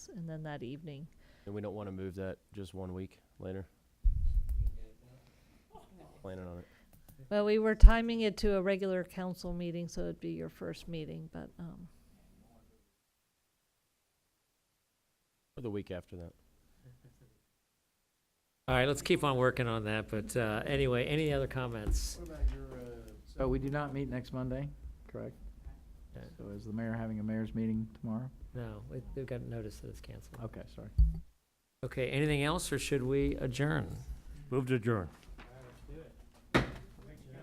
and then that evening. And we don't want to move that just one week later. Planning on it. Well, we were timing it to a regular council meeting, so it'd be your first meeting, but, um, Or the week after that. All right, let's keep on working on that, but uh, anyway, any other comments? So we do not meet next Monday, correct? Okay. So is the mayor having a mayor's meeting tomorrow? No, we- we've got notice that it's canceled. Okay, sorry. Okay, anything else, or should we adjourn? Move to adjourn.